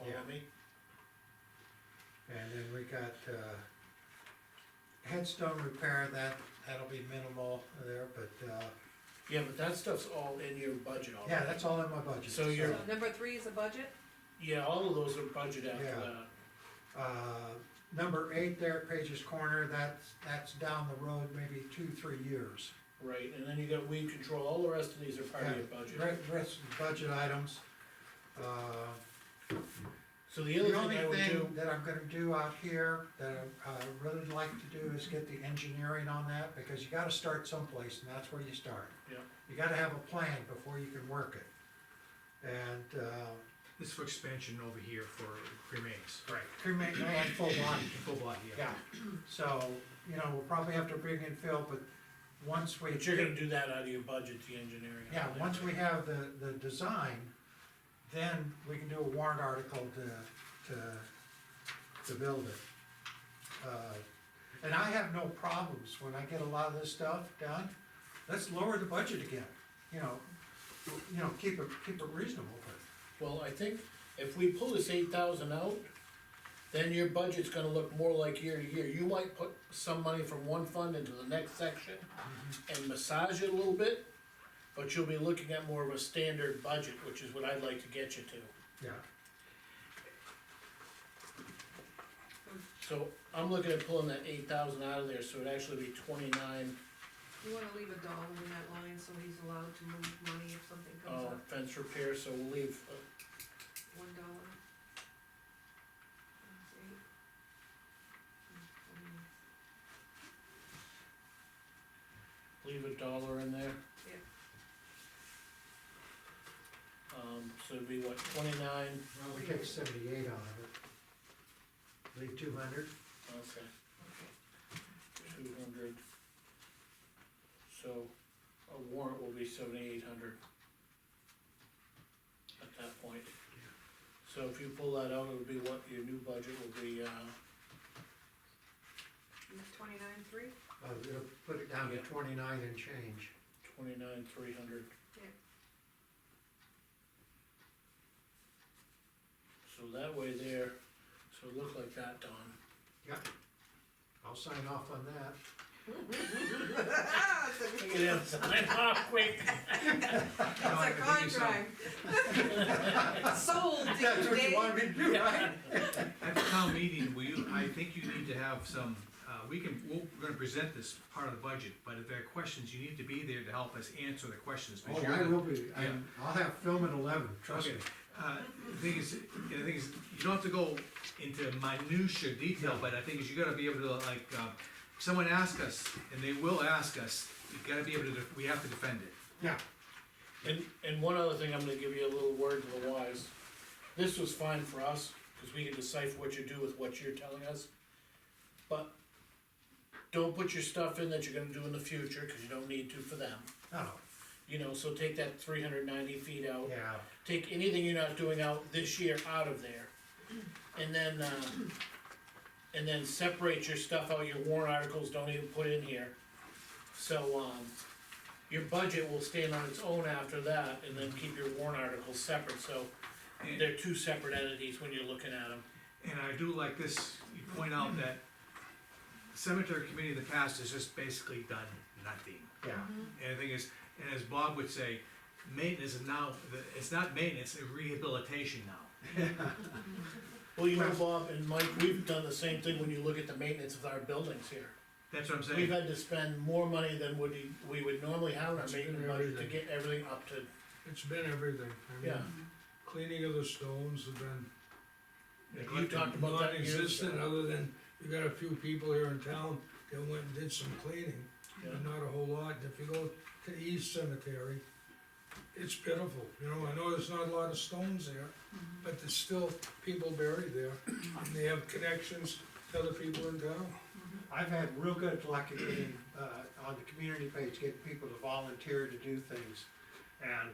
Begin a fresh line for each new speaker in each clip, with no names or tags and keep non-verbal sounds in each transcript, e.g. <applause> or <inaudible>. Yeah.
follow me?
And then we got, uh, headstone repair, that, that'll be minimal there, but, uh,
Yeah, but that stuff's all in your budget already.
yeah, that's all in my budget.
So you're-
So Number three is a budget,
Yeah, all of those are budget after
Yeah.
that.
Uh, number eight there, Page's Corner, that's, that's down the road, maybe two, three years.
Right, and then you got weed control, all the rest of these are part of your budget.
Re- Rest, of the budget items. Uh,
So the
The
other
only
thing I would do,
thing that I'm gonna do out here, that I, I really like to do is get the engineering on that, because you gotta start someplace, and that's where you start.
Yeah.
You gotta have a plan before you can work it. And, uh,
This is for expansion over here for cremains. Right.
cremate, and full body,
Full block, yeah.
yeah. So, you know, we'll probably have to bring in Phil, but once we.
but you're gonna do that out of your budget, the engineering.
Yeah, once we have the, the design, then we can do a warrant article to, to, to build it. Uh, And I have no problems when I get a lot of this stuff done, let's lower the budget again, you know, you know, keep it, keep it reasonable, but,
Well, I think if we pull this eight thousand out, then your budget's gonna look more like year to year. You might put some money from one fund into the next section
Mm-hmm.
and massage it a little bit, but you'll be looking at more of a standard budget, which is what I'd like to get you to.
yeah.
So I'm looking at pulling that eight thousand out of there, so it'd actually be twenty-nine,
you wanna leave a dollar in that line, so he's allowed to move money if something comes
uh,
up,
fence repair, so we'll leave uh,
one dollar. That's eight. Mm,
leave
mm,
a dollar in there.
Yeah.
Um, so it'd be what, twenty-nine,
Well, we take seventy-eight out of it. Leave two hundred,
okay,
Okay,
two hundred. So a warrant will be seventy-eight hundred. At that point. So if you pull that out, it'll be what your new budget will be, uh,
twenty-nine, three,
uh, it'll put it down to
Yeah.
twenty-nine and change.
twenty-nine, three hundred.
Yeah.
So that way there, so it look like that, Don.
I'll sign off on that.
Hmm, <laughs>
Look at him, sign off quick.
it's a contract.
<laughs>
Sold,
That's what you
Dave.
wanted me to do, right?
At the town meeting, we, I think you need to have some, uh, we can, we'll- we're gonna present this part of the budget, but if there are questions, you need to be there to help us answer the questions.
Oh,
because
I
you're the-
will be, I,
yeah.
I'll have film at eleven, trust me.
Okay, uh, the thing is, the thing is, you don't have to go into minutia detail, but I think is you gotta be able to like, uh, someone ask us, and they will ask us, you gotta be able to, def- we have to defend it.
Yeah,
And, and one other thing, I'm gonna give you a little word to the wise. This was fine for us, cause we can decipher what you do with what you're telling us. But don't put your stuff in that you're gonna do in the future, cause you don't need to for them.
no,
You know, so take that three hundred ninety feet out.
Oh, yeah,
Take anything you're not doing out this year out of there. And then, uh, and then separate your stuff out, your warrant articles, don't even put in here. So, um, your budget will stand on its own after that, and then keep your warrant articles separate, so
And-
they're two separate entities when you're looking at them.
And I do like this, you point out that cemetery committee in the past has just basically done nothing.
yeah,
And the thing is, and as Bob would say, maintenance is now, it's not maintenance, it's rehabilitation now.
Well, you know, Bob and Mike, we've done the same thing when you look at the maintenance of our buildings here.
That's what I'm
We've
saying.
had to spend more money than would, we- we would normally have in our
It's been
maintenance budget to
everything.
get everything up to,
It's been everything, I mean,
yeah.
cleaning of the stones have been.
You talked about that years
Non-existent,
ago.
other than, you got a few people here in town that went and did some cleaning,
Yeah.
but not a whole lot, and if you go to the East Cemetery, it's pitiful, you know, I know there's not a lot of stones there, but there's still people buried there, and they have connections to other people in town.
I've had real good luck at getting, uh, on the community page, getting people to volunteer to do things. And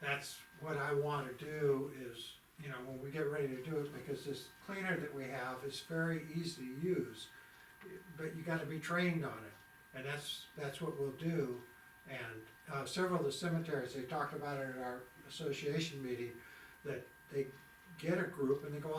that's what I wanna do is, you know, when we get ready to do it, because this cleaner that we have is very easy to use. But you gotta be trained on it, and that's, that's what we'll do. And, uh, several of the cemeteries, they talked about it at our association meeting, that they get a group and they go